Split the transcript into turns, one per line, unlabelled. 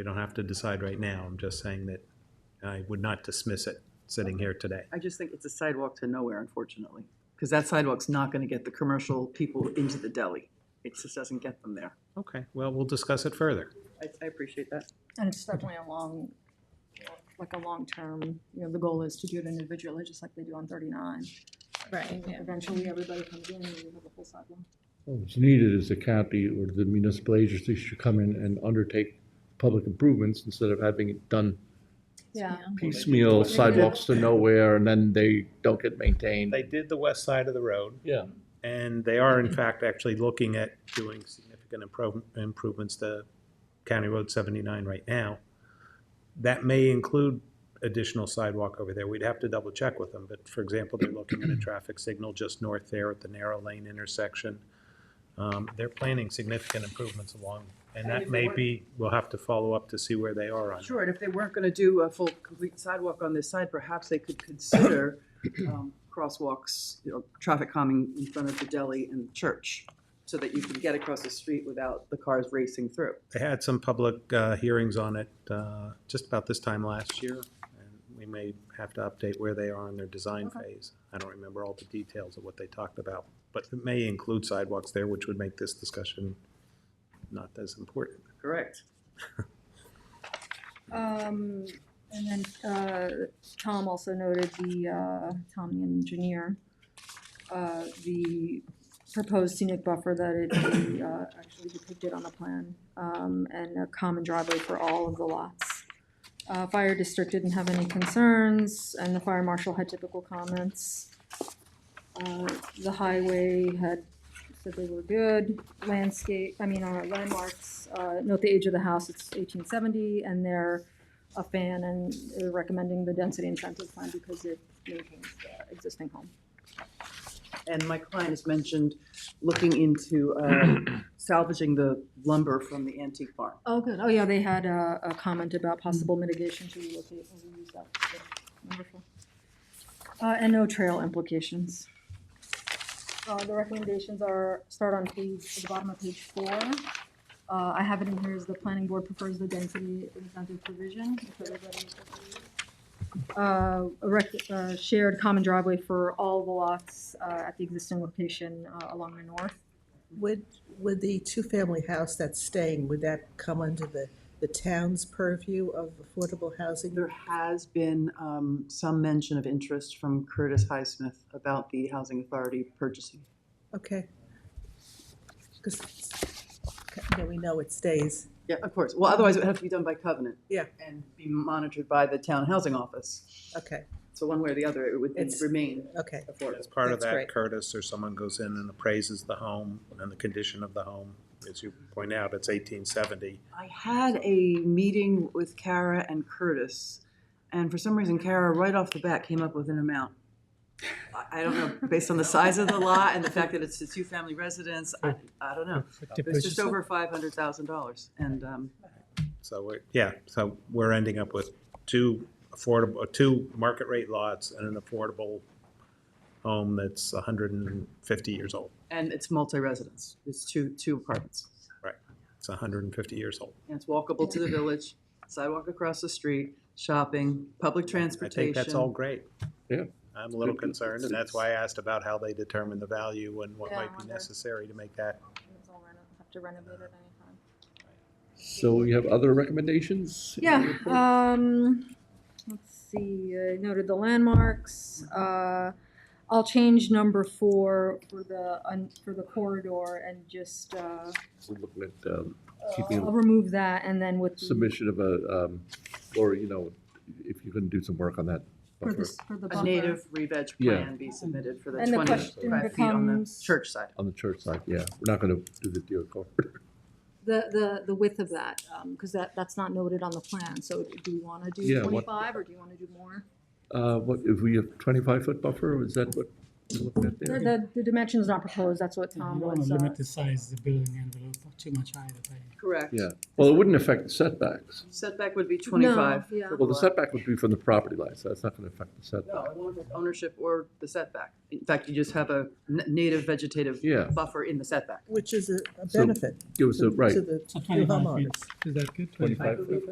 We don't have to decide right now. I'm just saying that I would not dismiss it sitting here today.
I just think it's a sidewalk to nowhere, unfortunately, because that sidewalk's not gonna get the commercial people into the deli. It just doesn't get them there.
Okay, well, we'll discuss it further.
I, I appreciate that.
And it's definitely a long, like a long-term, you know, the goal is to do it individually, just like they do on thirty-nine.
Right,
And
yeah.
Eventually, everybody comes in and you have a full sidewalk.
What's needed is the county or the municipal agency should come in and undertake public improvements instead of having it done
Yeah.
piecemeal sidewalks to nowhere and then they don't get maintained.
They did the west side of the road,
Yeah,
and they are in fact actually looking at doing significant impro- improvements to County Road 79 right now. That may include additional sidewalk over there. We'd have to double check with them, but for example, they're looking at a traffic signal just north there at the narrow lane intersection. Um, They're planning significant improvements along, and
And
that
if it
may
were-
be, we'll have to follow up to see where they are on. it.
Sure, and if they weren't gonna do a full, complete sidewalk on this side, perhaps they could consider, um, crosswalks, you know, traffic calming in front of the deli and the church, so that you can get across the street without the cars racing through.
They had some public uh, hearings on it uh, just about this time last year, and we may have to update where they are in their design
Okay.
phase. I don't remember all the details of what they talked about, but it may include sidewalks there, which would make this discussion not as important.
Correct.
Um, and then, uh, Tom also noted the, uh, Tom the engineer, uh, the proposed scenic buffer that it, be, uh, actually depicted on the plan, um, and a common driveway for all of the lots. Uh, fire district didn't have any concerns, and the fire marshal had typical comments. Uh, the highway had said they were good landscape, I mean, uh, landmarks, uh, note the age of the house, it's eighteen seventy, and they're a fan and they're recommending the density incentive plan because it maintains the existing home.
And my client has mentioned looking into, uh, salvaging the lumber from the antique barn.
Oh, good, oh, yeah, they had a, a comment about possible mitigation to relocate and reuse that, so, wonderful. Uh, and no trail implications. Uh, the recommendations are, start on page, at the bottom of page four. Uh, I have it in here as the planning board prefers the density incentive provision. if everybody agrees. Uh, a rec- uh, shared common driveway for all the lots, uh, at the existing location, uh, along the north.
Would, would the two-family house that's staying, would that come under the, the town's purview of affordable housing?
There has been um, some mention of interest from Curtis Highsmith about the Housing Authority purchasing.
Okay. Because, yeah, we know it stays.
Yeah, of course. Well, otherwise it would have to be done by covenant.
Yeah.
And be monitored by the town housing office.
Okay,
So one way or the other, it would
It's-
remain
okay.
affordable.
As part of
That's
that,
great.
Curtis or someone goes in and appraises the home and the condition of the home. As you point out, it's eighteen seventy.
I had a meeting with Kara and Curtis, and for some reason Kara, right off the bat, came up with an amount. I- I don't know, based on the size of the lot and the fact that it's a two-family residence, I, I don't know. It was just over five hundred thousand dollars, and, um,
So we're, yeah, so we're ending up with two affordable, uh, two market rate lots and an affordable home that's hundred and fifty years old.
And it's multi-residence, it's two, two apartments.
It's hundred and fifty years old.
And it's walkable to the village, sidewalk across the street, shopping, public
I
transportation.
think that's all great.
Yeah.
I'm a little concerned, and that's why I asked about how they determine the value and what
Yeah, I
might be
wonder.
necessary to make that.
It's all reno- Have to renovate it anytime.
so we have other recommendations? in the
Yeah,
report?
um, let's see, I noted the landmarks, uh, I'll change number four for the, un- for the corridor and just, uh,
We're looking at um, Keeping it-
I'll remove that and then with. the-
submission of a, um, Laura, you know, if you can do some work on that.
For the,
buffer
s- for the
A
buffer.
native re-veg
Yeah.
plan be submitted for the
And the question
twenty-five feet on the
becomes-
church side.
On the church side, yeah, we're not gonna do the deer court.
The, the, the width of that, um, cause that, that's not noted on the plan, so do you wanna do
Yeah, what-
twenty-five or do you wanna do more?
Uh, what, if we have twenty-five foot buffer, is that what looked at
The,
there.
the, the dimension's not proposed, that's what
You
Tom
don't want
was,
to
uh,
limit the size of the building envelope too much either, but
Correct.
Yeah, well, it wouldn't affect the setbacks.
Setback would be twenty-five.
yeah.
for
Well, the
lot.
setback would be from the property line, so that's not gonna affect the
No,
setback.
it won't affect ownership or the setback. In fact, you just have a n- native vegetative
Yeah.
buffer in the setback.
which is a a
So,
benefit
Give us
to
a, right.
to the
so
to
twenty-five feet,
homeowners.
is that good?
25
feet.